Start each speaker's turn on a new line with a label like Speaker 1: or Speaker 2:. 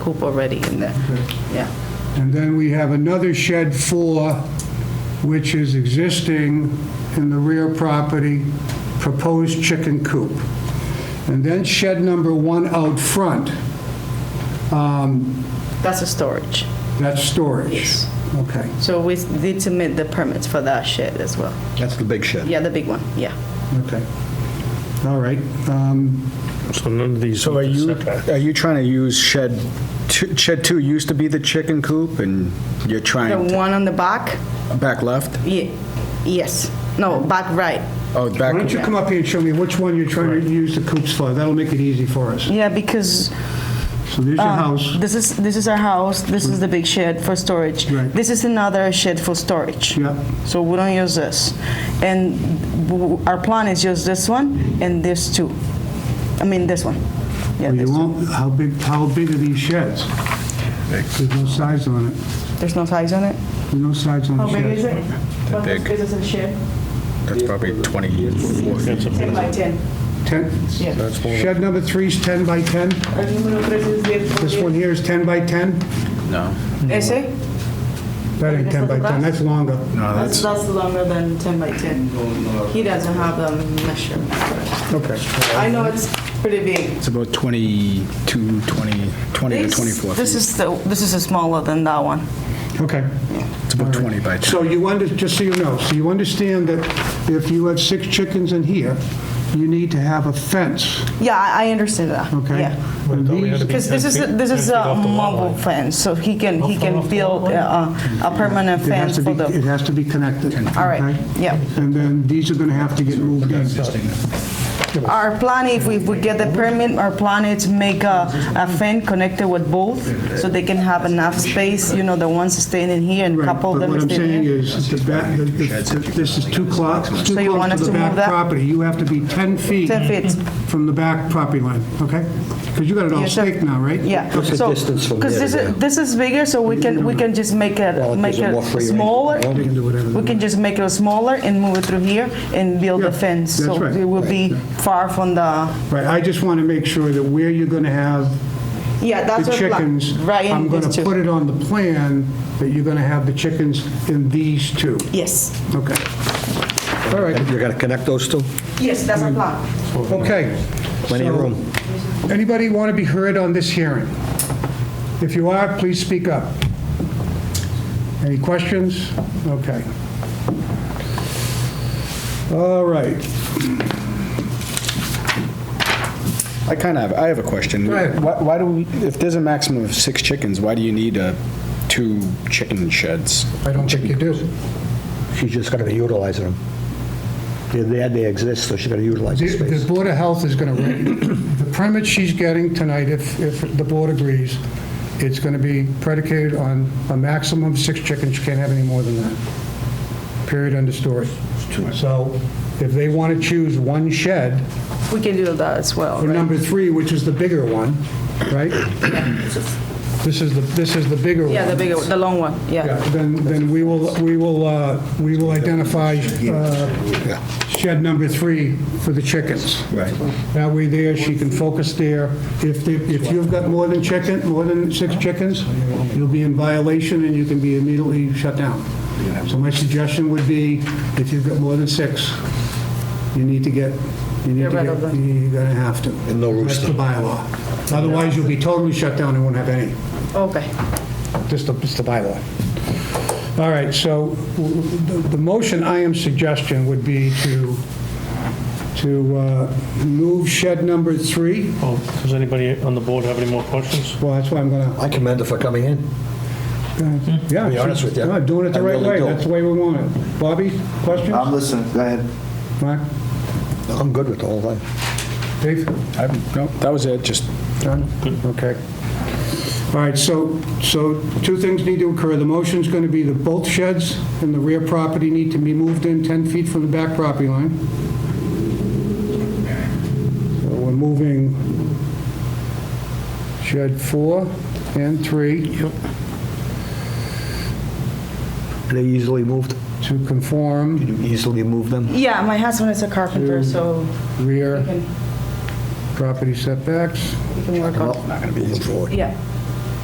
Speaker 1: coop already in there.
Speaker 2: Mm-hmm.
Speaker 1: Yeah.
Speaker 2: And then we have another shed four, which is existing in the rear property, proposed chicken coop. And then shed number one out front,
Speaker 1: That's a storage.
Speaker 2: that's storage.
Speaker 1: Yes.
Speaker 2: Okay.
Speaker 1: So we did submit the permits for that shed as well.
Speaker 3: That's the big shed.
Speaker 1: Yeah, the big one, yeah.
Speaker 2: Okay. All right. Um,
Speaker 4: So none of these
Speaker 3: So are
Speaker 4: meet
Speaker 3: you,
Speaker 4: the setback.
Speaker 3: are you trying to use shed, two- shed two used to be the chicken coop, and you're
Speaker 1: The
Speaker 3: trying, to-
Speaker 1: one on the back,
Speaker 3: back left?
Speaker 1: ye- yes, no, back right.
Speaker 3: Oh,
Speaker 2: Why don't
Speaker 3: back,
Speaker 2: you come up here and show me which one you're trying to use the coops for? That'll make it easy for us.
Speaker 1: Yeah, because
Speaker 2: So there's your
Speaker 1: Um,
Speaker 2: house.
Speaker 1: this is, this is our house, this is the big shed for storage.
Speaker 2: Right.
Speaker 1: This is another shed for storage.
Speaker 2: Yeah.
Speaker 1: So we don't use this. And w- our plan is use this one and this two. I mean, this one. Yeah, this
Speaker 2: Well, Oh, You
Speaker 1: two.
Speaker 2: won't, how big, how big are these sheds? There's no size on it.
Speaker 1: There's no size on it?
Speaker 2: There's no size on the sheds.
Speaker 1: it? What
Speaker 3: big.
Speaker 1: is this shed?
Speaker 3: that's probably 24. feet.
Speaker 1: 10 by 10.
Speaker 2: 10?
Speaker 1: Yeah.
Speaker 2: Shed number three is 10 by 10? This one here is 10 by 10?
Speaker 3: No.
Speaker 1: Ese?
Speaker 2: That ain't 10 by 10, that's longer.
Speaker 1: That's, that's longer than 10 by 10. He doesn't have a measurement.
Speaker 2: Okay.
Speaker 1: I know it's pretty big.
Speaker 3: It's about 22, 20, 20 to 24
Speaker 1: This
Speaker 3: feet.
Speaker 1: is, the- this is smaller than that one.
Speaker 2: Okay.
Speaker 3: It's about 20 by 10.
Speaker 2: So you under, just so you know, so you understand that if you have six chickens in here, you need to have a fence,
Speaker 1: Yeah, I, I understand that.
Speaker 2: okay?
Speaker 1: Yeah.
Speaker 2: And
Speaker 4: Thought we
Speaker 2: these-
Speaker 4: had to be
Speaker 1: Because this
Speaker 4: 10
Speaker 1: is, a-
Speaker 4: feet-
Speaker 1: this
Speaker 4: 10
Speaker 1: is
Speaker 4: feet
Speaker 1: a
Speaker 4: off the lot
Speaker 1: mobile
Speaker 4: line.
Speaker 1: fence, so he can, he can build uh, uh, a permanent
Speaker 2: It
Speaker 1: fence
Speaker 2: has to
Speaker 1: for
Speaker 2: be, it
Speaker 1: the,
Speaker 2: has to be connected.
Speaker 1: all right,
Speaker 2: okay?
Speaker 1: yeah.
Speaker 2: And then these are going to have to get moved in.
Speaker 1: Our plan, if we, if we get the permit, our plan is make a, a fence connected with both, so they can have enough space, you know, the ones staying in here and
Speaker 2: Right,
Speaker 1: couple
Speaker 2: But
Speaker 1: them
Speaker 2: what I'm
Speaker 1: staying
Speaker 2: saying
Speaker 1: here.
Speaker 2: is, the back, the- the- this is too close, too
Speaker 1: So you want
Speaker 2: close
Speaker 1: us
Speaker 2: to
Speaker 1: to
Speaker 2: the
Speaker 1: move
Speaker 2: back
Speaker 1: that?
Speaker 2: property. You have to be 10 feet.
Speaker 1: 10 feet.
Speaker 2: From the back property line, okay? Because you got it all
Speaker 1: Yeah, so-
Speaker 2: staked now, right?
Speaker 1: Yeah.
Speaker 5: What's the distance from
Speaker 1: Because
Speaker 5: there
Speaker 1: this
Speaker 5: to
Speaker 1: is, this is bigger, so we can, we can just make
Speaker 5: Well,
Speaker 1: it,
Speaker 5: it
Speaker 1: make
Speaker 5: gives them
Speaker 1: it
Speaker 5: more free range.
Speaker 1: smaller.
Speaker 2: They can do whatever they
Speaker 1: We can just make it smaller and move it through here and build a
Speaker 2: Yeah,
Speaker 1: fence.
Speaker 2: that's
Speaker 1: So
Speaker 2: right.
Speaker 1: it will be far from the,
Speaker 2: Right, I just want to make sure that where you're going to have
Speaker 1: yeah, that's
Speaker 2: the
Speaker 1: our plan.
Speaker 2: chickens,
Speaker 1: Right
Speaker 2: I'm
Speaker 1: in
Speaker 2: going
Speaker 1: these two.
Speaker 2: to put it on the plan that you're going to have the chickens in these two,
Speaker 1: Yes,
Speaker 2: okay? All right,
Speaker 5: You're going to connect those two?
Speaker 1: yes, that's our plan.
Speaker 2: okay.
Speaker 5: Plenty of
Speaker 2: So-
Speaker 5: room.
Speaker 2: Anybody want to be heard on this hearing? If you are, please speak up. Any questions? Okay. All right.
Speaker 3: I kind of, I have a question.
Speaker 2: Go ahead.
Speaker 3: Why why do we, if there's a maximum of six chickens, why do you need uh, two chicken sheds?
Speaker 2: I don't think you do.
Speaker 5: She's just going to be utilizing them. They're there, they exist, so she's going to utilize the
Speaker 2: The
Speaker 5: space.
Speaker 2: the Board of Health is going to, the permit she's getting tonight, if, if the board agrees, it's going to be predicated on a maximum of six chickens, you can't have any more than that. Period, end of story. So if they want to choose one shed,
Speaker 1: We can do that as well,
Speaker 2: Or
Speaker 1: right?
Speaker 2: number three, which is the bigger one, right? This is the, this is the bigger one.
Speaker 1: Yeah, the bigger, the long one,
Speaker 2: Yeah,
Speaker 1: yeah.
Speaker 2: Then, then we will, we will, uh, we will identify uh, shed number three for the chickens.
Speaker 5: Right.
Speaker 2: That way there, she can focus there. If, they- if you've got more than chicken, more than six chickens, you'll be in violation and you can be immediately shut down. So my suggestion would be, if you've got more than six, you need to get, you need to
Speaker 1: Get rid of
Speaker 2: get,
Speaker 1: them.
Speaker 2: you're gonna have to.
Speaker 5: And no
Speaker 2: That's the bylaw. Otherwise, you'll be totally shut down and won't have any.
Speaker 1: Okay.
Speaker 2: Just the, just the bylaw. All right, so w- the the motion I am suggesting would be to, to uh, move shed number three.
Speaker 4: Oh, Does anybody on the board have any more questions?
Speaker 2: Well, that's why I'm gonna,
Speaker 5: I commend her for coming in.
Speaker 2: yeah.
Speaker 5: be honest with you,
Speaker 2: No, Doing it the
Speaker 5: I
Speaker 2: right
Speaker 5: really Um,
Speaker 2: way,
Speaker 5: do.
Speaker 2: that's the way we want it. Bobby,
Speaker 6: I'm
Speaker 2: questions?
Speaker 6: listening, go ahead.
Speaker 2: Mark,
Speaker 5: I'm good with the whole thing.
Speaker 2: Dave?
Speaker 3: I'm- No, that was it, just
Speaker 2: Done? Okay. All right, so, so two things need to occur. The motion's going to be that both sheds in the rear property need to be moved in 10 feet from the back property line. So we're moving shed four and three
Speaker 5: Are they easily moved?
Speaker 2: to conform
Speaker 5: You easily move them?
Speaker 1: Yeah, my husband is a carpenter, so
Speaker 2: rear
Speaker 1: we can,
Speaker 2: property setbacks.
Speaker 1: we can work
Speaker 5: Well,
Speaker 1: on,
Speaker 5: Moving forward.
Speaker 1: yeah.